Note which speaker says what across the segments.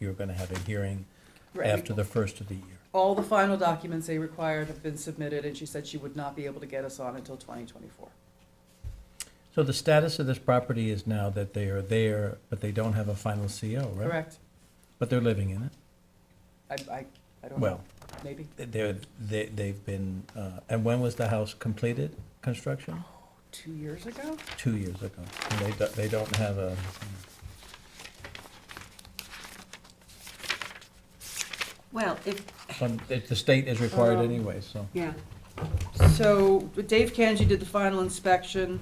Speaker 1: you're gonna have a hearing
Speaker 2: Right.
Speaker 1: after the first of the year.
Speaker 2: All the final documents they required have been submitted, and she said she would not be able to get us on until 2024.
Speaker 1: So the status of this property is now that they are there, but they don't have a final CO, right?
Speaker 2: Correct?
Speaker 1: But they're living in it.
Speaker 2: I, I, I don't know,
Speaker 1: Well,
Speaker 2: maybe.
Speaker 1: they're, they, they've been, uh, and when was the house completed, construction?
Speaker 2: Oh. Two years ago?
Speaker 1: Two years ago. And they, do- they don't have a,
Speaker 3: Well, if,
Speaker 1: um, it- the state is required
Speaker 2: Um,
Speaker 1: anyway, so.
Speaker 3: yeah,
Speaker 2: So Dave Kanji did the final inspection,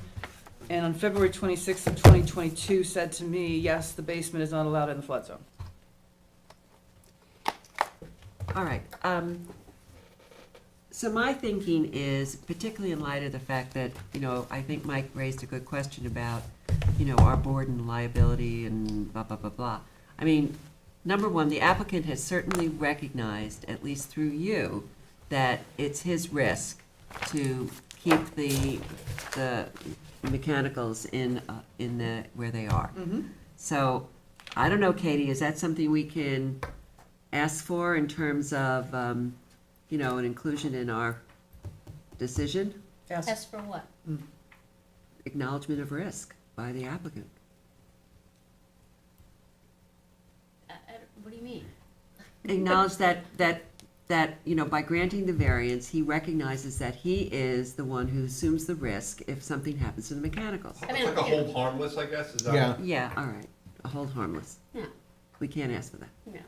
Speaker 2: and on February 26th of 2022 said to me, yes, the basement is not allowed in the flood zone.
Speaker 3: all right. um, So my thinking is, particularly in light of the fact that, you know, I think Mike raised a good question about, you know, our board and liability and blah, blah, blah, blah. I mean, number one, the applicant has certainly recognized, at least through you, that it's his risk to keep the, the mechanicals in, uh, in the, where they are.
Speaker 2: Mm-hmm.
Speaker 3: So, I don't know, Katie, is that something we can ask for in terms of, um, you know, an inclusion in our decision?
Speaker 2: Yes,
Speaker 4: As for what?
Speaker 3: Acknowledgement of risk by the applicant.
Speaker 4: I- I don't- Uh, What do you mean?
Speaker 3: Acknowledge that, that, that, you know, by granting the variance, he recognizes that he is the one who assumes the risk if something happens to the mechanicals.
Speaker 4: I mean,
Speaker 5: It's like a
Speaker 4: you know.
Speaker 5: hold harmless, I guess, is that?
Speaker 6: Yeah.
Speaker 3: Yeah, all right, hold harmless.
Speaker 4: No,
Speaker 3: We can't ask for that.
Speaker 4: no,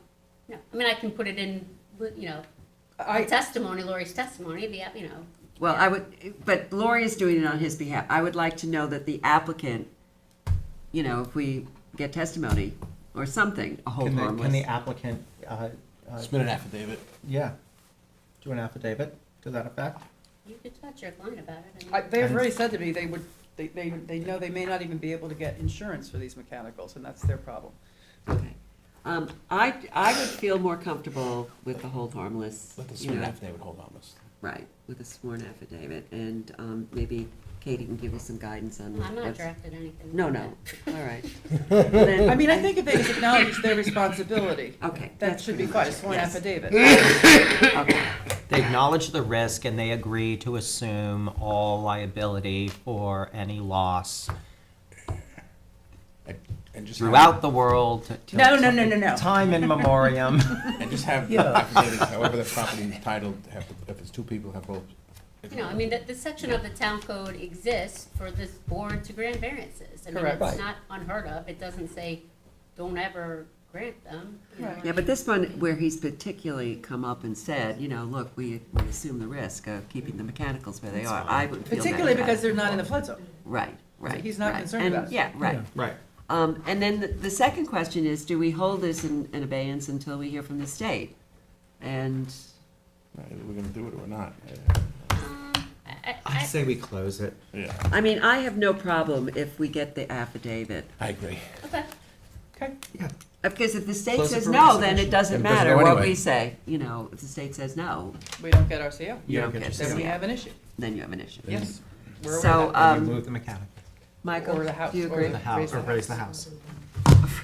Speaker 4: no. I mean, I can put it in, with, you know,
Speaker 2: I,
Speaker 4: testimony, Lori's testimony, the, you know,
Speaker 3: Well, I would, but Lori is doing it on his behalf. I would like to know that the applicant, you know, if we get testimony or something, a whole
Speaker 6: Can the, can the
Speaker 3: Oh, harmless.
Speaker 6: applicant, uh, uh,
Speaker 7: Submit an affidavit.
Speaker 6: yeah, do an affidavit to that effect?
Speaker 4: you could talk to your client about it. mean-
Speaker 2: I- they've already said to me they would, they, they, they know they may not even be able to get insurance for these mechanicals, and that's their problem.
Speaker 3: Okay. Um, I, I would feel more comfortable with the hold harmless,
Speaker 7: Let the
Speaker 3: you
Speaker 7: submit an
Speaker 3: know,
Speaker 7: affidavit hold harmless.
Speaker 3: right, with a sworn affidavit. And, um, maybe Katie can give us some guidance on
Speaker 4: I'm not
Speaker 3: what's.
Speaker 4: drafted anything.
Speaker 3: No,
Speaker 4: like
Speaker 3: no,
Speaker 4: that.
Speaker 3: all right. Then-
Speaker 2: I mean, I think if they acknowledge their responsibility,
Speaker 3: Okay.
Speaker 2: that
Speaker 3: that's
Speaker 2: should be
Speaker 3: pretty
Speaker 2: quite
Speaker 3: much
Speaker 2: a
Speaker 3: it.
Speaker 2: sworn
Speaker 3: Yes.
Speaker 2: affidavit.
Speaker 3: Okay.
Speaker 8: They acknowledge the risk and they agree to assume all liability for any loss
Speaker 7: And- And just have-
Speaker 8: throughout the world. to- till
Speaker 2: No, no, no, no, no.
Speaker 8: Time in memoriam.
Speaker 7: And just have
Speaker 1: Yeah.
Speaker 7: affidavits, however the property is titled, have, to- if it's two people, have both. if-
Speaker 4: You know, I mean, the, the section of the town code exists for this board to grant variances. I mean,
Speaker 2: Correct.
Speaker 4: it's not unheard of. It doesn't say, don't ever grant them. you know,
Speaker 2: Right.
Speaker 4: I
Speaker 3: Yeah,
Speaker 4: mean-
Speaker 3: but this one where he's particularly come up and said, you know, look, we we assume the risk of keeping the mechanicals where they are, I would feel
Speaker 2: Particularly
Speaker 3: better about
Speaker 2: because
Speaker 3: it.
Speaker 2: they're not in the flood zone.
Speaker 3: Right, right.
Speaker 2: He's not
Speaker 3: right.
Speaker 2: concerned
Speaker 3: And-
Speaker 2: about it.
Speaker 3: Yeah, right.
Speaker 1: Yeah.
Speaker 6: Right.
Speaker 3: Um, and then the, the second question is, do we hold this in, in abeyance until we hear from the state? And,
Speaker 7: Right, uh, We're gonna do it or not.
Speaker 4: Um, I, I, I-
Speaker 8: say we close it.
Speaker 7: Yeah,
Speaker 3: I mean, I have no problem if we get the affidavit.
Speaker 7: I agree.
Speaker 4: okay.
Speaker 2: Okay.
Speaker 3: Because if the state
Speaker 7: Close it
Speaker 3: says
Speaker 7: for
Speaker 3: no, then
Speaker 7: resubmission.
Speaker 3: it doesn't
Speaker 7: Then it doesn't go
Speaker 3: matter what
Speaker 7: anyway.
Speaker 3: we say, you know, if the state says no,
Speaker 2: We don't get our CO,
Speaker 3: you
Speaker 6: Yeah,
Speaker 3: don't
Speaker 6: get
Speaker 3: get,
Speaker 6: your
Speaker 2: then we
Speaker 3: the-
Speaker 2: have an issue.
Speaker 3: then you have an issue.
Speaker 2: Yes. We're aware
Speaker 3: So,
Speaker 2: of that.
Speaker 6: And
Speaker 3: um,
Speaker 6: you move the mechanic,
Speaker 3: Michael,
Speaker 2: Or the house,
Speaker 3: do you
Speaker 2: or
Speaker 3: agree?
Speaker 2: the house.
Speaker 6: or raise the house.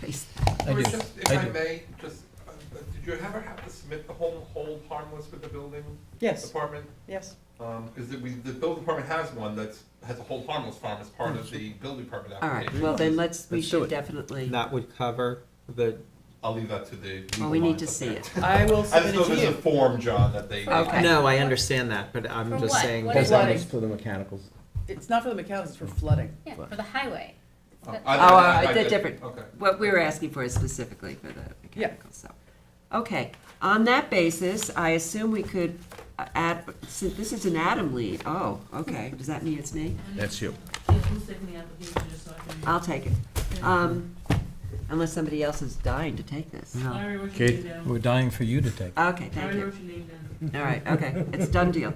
Speaker 3: Raise the
Speaker 1: I do,
Speaker 5: Or just, if
Speaker 1: I
Speaker 5: I
Speaker 1: do.
Speaker 5: may, just, uh, uh, did you ever have to submit the whole hold harmless with the building
Speaker 2: Yes,
Speaker 5: department?
Speaker 2: yes.
Speaker 5: Um, because the, we, the building department has one that's, has a hold harmless farm as part of the building department
Speaker 3: All right,
Speaker 5: application.
Speaker 3: well then let's, we
Speaker 6: Let's do
Speaker 3: should
Speaker 6: it.
Speaker 3: definitely,
Speaker 6: That would cover the,
Speaker 5: I'll leave that to the.
Speaker 3: well, we need to see it.
Speaker 2: I will
Speaker 5: I just
Speaker 2: submit
Speaker 5: know
Speaker 2: it to
Speaker 5: there's a
Speaker 2: you.
Speaker 5: form, John, that they.
Speaker 3: Okay.
Speaker 6: no, I understand that, but
Speaker 4: For
Speaker 6: I'm just
Speaker 4: what?
Speaker 6: saying.
Speaker 4: What is
Speaker 2: Flooding.
Speaker 4: it?
Speaker 6: For the mechanicals.
Speaker 2: It's not for the mechanics, it's for flooding.
Speaker 4: Yeah, for the highway.
Speaker 5: Oh,
Speaker 4: But-
Speaker 5: I-
Speaker 3: Oh,
Speaker 5: I-
Speaker 3: uh,
Speaker 5: I-
Speaker 3: they're different.
Speaker 5: Okay.
Speaker 3: What we were asking for is specifically for the mechanicals, so. Okay, on that basis, I assume we could uh, add, since this is an Adam lead, oh, okay, does that mean it's me?
Speaker 7: That's you.
Speaker 3: I'll take it. Um, Unless somebody else is dying to take this.
Speaker 9: Larry wrote your
Speaker 7: Kate?
Speaker 9: name down.
Speaker 1: We're dying for you to take.
Speaker 3: Okay, thank
Speaker 9: Larry
Speaker 3: you.
Speaker 9: wrote your name down.
Speaker 3: All right, okay, it's done deal.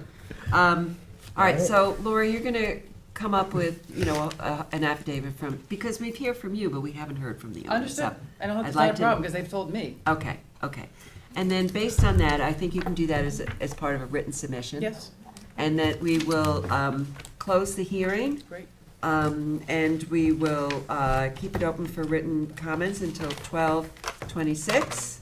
Speaker 3: Um, all right, so Lori, you're gonna come up with, you know, a- a- an affidavit from, because we've heard from you, but we haven't heard from the owner.
Speaker 2: Understood.
Speaker 3: so-
Speaker 2: I don't have
Speaker 3: I'd
Speaker 2: to have
Speaker 3: like
Speaker 2: a
Speaker 3: to-
Speaker 2: problem because they've told me.
Speaker 3: Okay, okay. And then based on that, I think you can do that as, a- as part of a written submission.
Speaker 2: Yes,
Speaker 3: And that we will, um, close the hearing
Speaker 2: great.
Speaker 3: Um, and we will, uh, keep it open for written comments until twelve twenty-six.